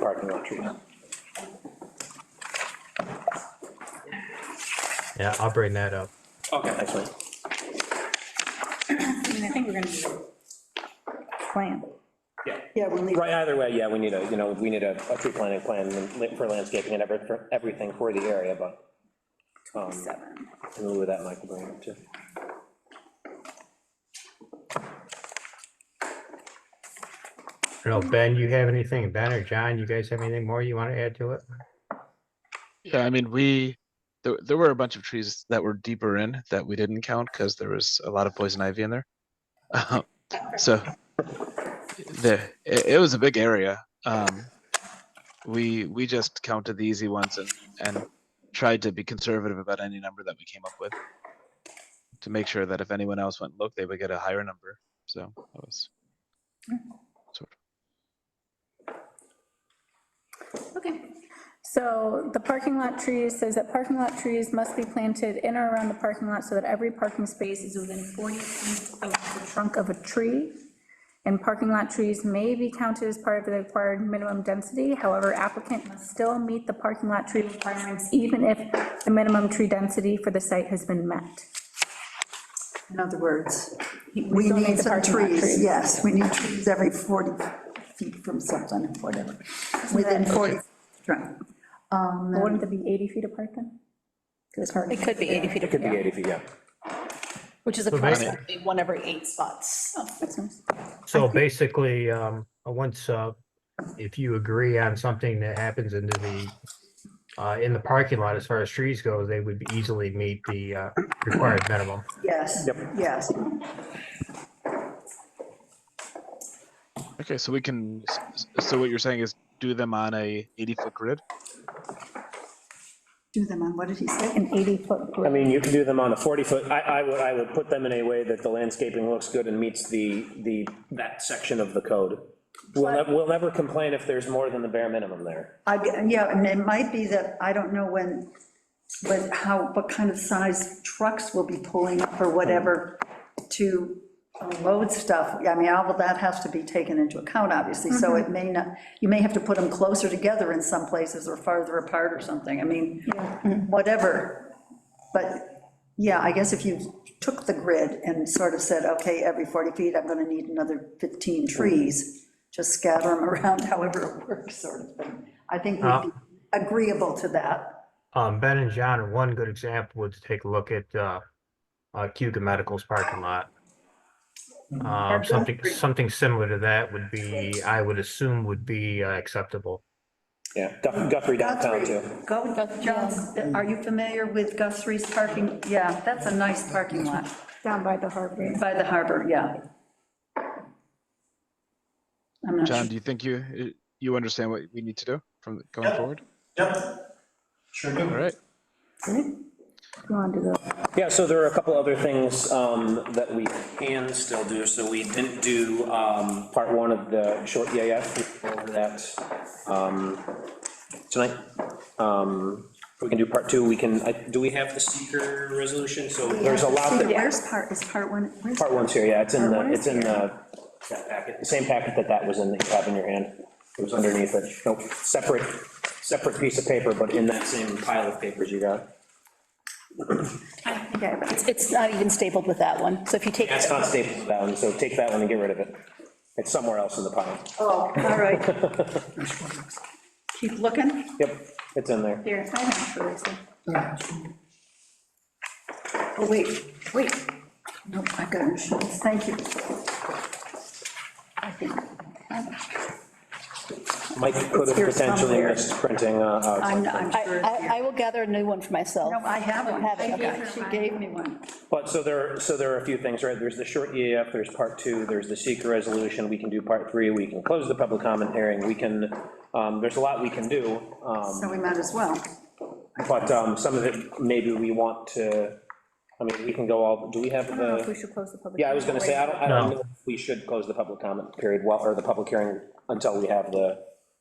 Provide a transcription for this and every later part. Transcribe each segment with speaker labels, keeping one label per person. Speaker 1: parking lot treatment.
Speaker 2: Yeah, I'll bring that up.
Speaker 1: Okay. Excellent.
Speaker 3: I mean, I think we're gonna need a plan.
Speaker 4: Yeah, we need,
Speaker 1: Right, either way, yeah, we need a, you know, we need a, a tree planting plan for landscaping and every- for everything for the area, but. um,
Speaker 3: Seven.
Speaker 1: In lieu of that, Mike will bring it up too.
Speaker 2: I don't know, Ben, you have anything? Ben or John, you guys have anything more you want to add to it?
Speaker 5: Yeah, I mean, we, there, there were a bunch of trees that were deeper in that we didn't count because there was a lot of poison ivy in there. Uh, So the, it, it was a big area. Um, we, we just counted the easy ones and, and tried to be conservative about any number that we came up with to make sure that if anyone else went, look, they would get a higher number. So that was sort of.
Speaker 3: Okay. So the parking lot trees says that parking lot trees must be planted in or around the parking lot so that every parking space is within 40 feet of the trunk of a tree. And parking lot trees may be counted as part of the required minimum density. However, applicant must still meet the parking lot tree requirements even if the minimum tree density for the site has been met.
Speaker 6: In other words,
Speaker 4: we
Speaker 3: still
Speaker 4: need
Speaker 3: the
Speaker 4: some
Speaker 3: parking lot
Speaker 4: trees, yes, we need trees every 40 feet from something, whatever, within 40. right. Um,
Speaker 3: Wouldn't it be 80 feet apart then?
Speaker 7: It could be 80 feet
Speaker 1: Could be
Speaker 7: apart,
Speaker 1: 80 feet, yeah.
Speaker 7: which is approximately one every eight spots.
Speaker 3: Oh, that's nice.
Speaker 2: So basically, um, once, uh, if you agree on something that happens into the, uh, in the parking lot, as far as trees go, they would easily meet the, uh, required minimum.
Speaker 4: Yes, yes.
Speaker 5: Okay, so we can, s- s- so what you're saying is do them on a 80 foot grid?
Speaker 4: Do them on, what did he say?
Speaker 3: An 80-foot
Speaker 1: I mean, you can do them on a 40-foot, I, I would, I would put them in a way that the landscaping looks good and meets the, the, that section of the code. We'll, ne- we'll never complain if there's more than the bare minimum there.
Speaker 4: I, yeah, and it might be that, I don't know when, when, how, what kind of size trucks will be pulling up or whatever to load stuff. I mean, all of that has to be taken into account, obviously, so it may not, you may have to put them closer together in some places or farther apart or something, I mean, whatever. But, yeah, I guess if you took the grid and sort of said, okay, every 40 feet, I'm gonna need another 15 trees, just scatter them around however it works, sort of thing. I think we'd be agreeable to that.
Speaker 2: Um, Ben and John, are one good example would take a look at, uh, uh, Cuba Medical's parking lot. Um, something, something similar to that would be, I would assume would be uh, acceptable.
Speaker 1: Yeah, Guth- Guthrie downtown too.
Speaker 4: Go, John, are you familiar with Guthrie's parking? Yeah, that's a nice parking lot
Speaker 3: down by the harbor.
Speaker 4: by the harbor, yeah. I'm not sure.
Speaker 5: John, do you think you, uh, you understand what we need to do from the- going
Speaker 8: Yep.
Speaker 5: forward?
Speaker 8: Yep. Sure
Speaker 5: All
Speaker 8: do.
Speaker 5: right.
Speaker 3: Go on to the.
Speaker 1: Yeah, so there are a couple other things um, that we can still do. So we didn't do um, part one of the short EAF, we went over that um, tonight. Um, We can do part two, we can, I- do we have the seeker resolution? So there's a lot that,
Speaker 4: Where's part, is part one, where's?
Speaker 1: part one's here, yeah, it's in the,
Speaker 4: Part one is
Speaker 1: it's in the that packet, the same packet that that was in, that you have in your hand. It was underneath it, Nope, separate, separate piece of paper, but in that same pile of papers you got.
Speaker 7: It's, it's not even stapled with that one, so if you take,
Speaker 1: That's not stapled to that one, so take that one and get rid of it. It's somewhere else in the pile.
Speaker 4: Oh, all right. Keep looking.
Speaker 1: Yep, it's in there.
Speaker 3: Here, I have it, Lisa.
Speaker 4: Oh, wait, wait. Nope, I got insurance, thank you. I think
Speaker 1: Mike could have
Speaker 4: here
Speaker 1: potentially
Speaker 4: somewhere.
Speaker 1: missed printing, uh, out.
Speaker 4: I'm, I'm
Speaker 7: I,
Speaker 4: sure. it's here.
Speaker 7: I, I will gather a new one for myself.
Speaker 4: No, I have one.
Speaker 7: Have it, okay.
Speaker 4: She gave me one.
Speaker 1: but so there, so there are a few things, right? There's the short EAF, there's part two, there's the seeker resolution, we can do part three, we can close the public comment hearing, we can, um, there's a lot we can do, um,
Speaker 4: So we might as well.
Speaker 1: but um, some of it, maybe we want to, I mean, we can go all, do we have
Speaker 3: I don't know if we
Speaker 1: the,
Speaker 3: should close the public.
Speaker 1: yeah, I was gonna say, I don't, I don't
Speaker 2: No.
Speaker 1: know if we should close the public comment period, well, or the public hearing until we have the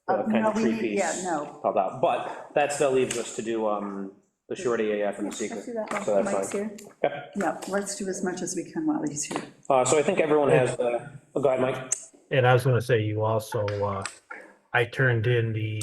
Speaker 1: the
Speaker 4: Uh,
Speaker 1: kind
Speaker 4: no,
Speaker 1: of
Speaker 4: we
Speaker 1: tree
Speaker 4: need-
Speaker 1: piece.
Speaker 4: yeah, no.
Speaker 1: Called out, but that still leaves us to do um, the short EAF and the seeker,
Speaker 3: Let's do
Speaker 1: so
Speaker 3: that
Speaker 1: that's
Speaker 3: while
Speaker 1: fine.
Speaker 3: Mike's here.
Speaker 4: Yeah, let's do as much as we can while he's here.
Speaker 1: Uh, So I think everyone has, the- oh, go ahead, Mike.
Speaker 2: And I was gonna say, you also, uh, I turned in the